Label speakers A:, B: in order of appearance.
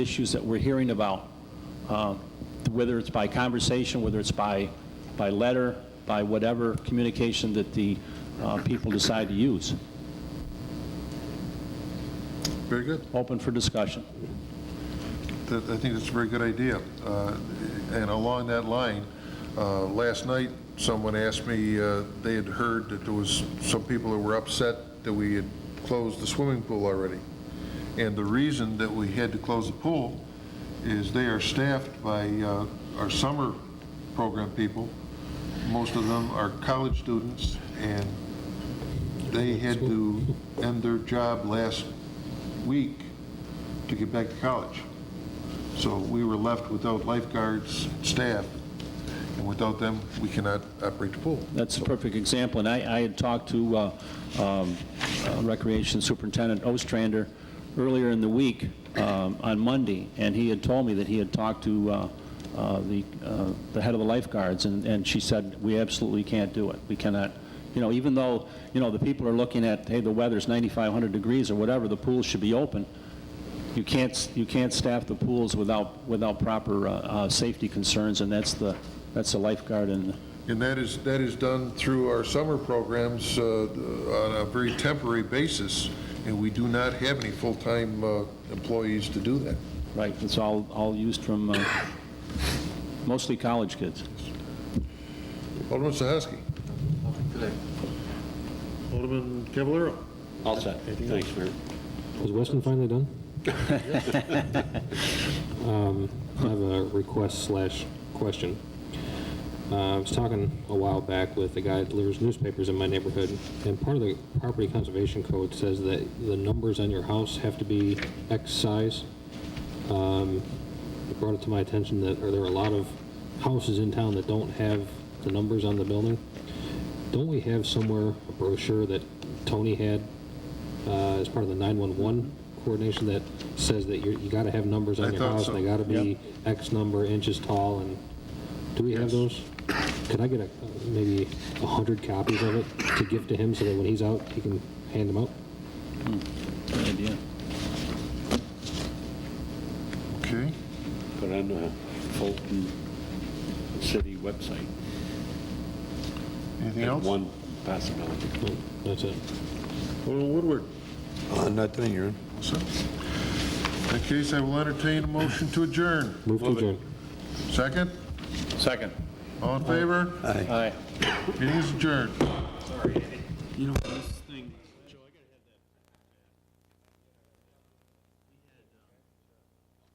A: issues that we're hearing about, uh, whether it's by conversation, whether it's by, by letter, by whatever communication that the uh, people decide to use.
B: Very good.
A: Open for discussion.
B: That- I think that's a very good idea. Uh, And along that line, uh, last night, someone asked me, uh, they had heard that there was some people that were upset that we had closed the swimming pool already. And the reason that we had to close the pool is they are staffed by uh, our summer program people. Most of them are college students, and they had to end their job last week to get back to college. So we were left without lifeguards, staff, and without them, we cannot operate the pool.
A: That's a perfect example, and I, I had talked to uh, um, uh, Recreation Superintendent Ostrander earlier in the week, um, on Monday, and he had told me that he had talked to uh, uh, the, uh, the head of the lifeguards, and, and she said, "We absolutely can't do it. We cannot, you know, even though, you know, the people are looking at, hey, the weather's 9,500 degrees or whatever, the pool should be open." You can't, you can't staff the pools without, without proper uh, uh, safety concerns, and that's the, that's the lifeguard and
B: And that is, that is done through our summer programs uh, on a very temporary basis, and we do not have any full-time uh, employees to do that.
A: Right, it's all, all used from uh, mostly college kids.
B: Alderman Sahaski,
C: Alderman Cavallaro.
D: All set. Thanks, Mayor.
E: Is Weston finally done? Um, I have a request slash question. Uh, I was talking a while back with a guy that delivers newspapers in my neighborhood, and part of the property conservation code says that the numbers on your house have to be X size. Um, It brought it to my attention that, or there are a lot of houses in town that don't have the numbers on the building. Don't we have somewhere a brochure that Tony had uh, as part of the 911 coordination that says that you're- you got to have numbers
B: I
E: on your
B: thought
E: house?
B: so.
E: and They got to be X number inches tall, and do we have those? Could I get a, maybe 100 copies of it to give to him so that when he's out, he can hand them out?
A: Good idea.
B: okay?
D: Put on the Fulton City website.
B: Anything else?
D: One possibility.
E: No, That's it.
B: Alderman Woodward.
D: Nothing, you're in.
B: So, In that case, I will entertain a motion to adjourn.
E: Move to adjourn.
B: Second?
A: Second.
B: All in favor?
A: Aye.
B: Meeting is adjourned.
F: You know, what else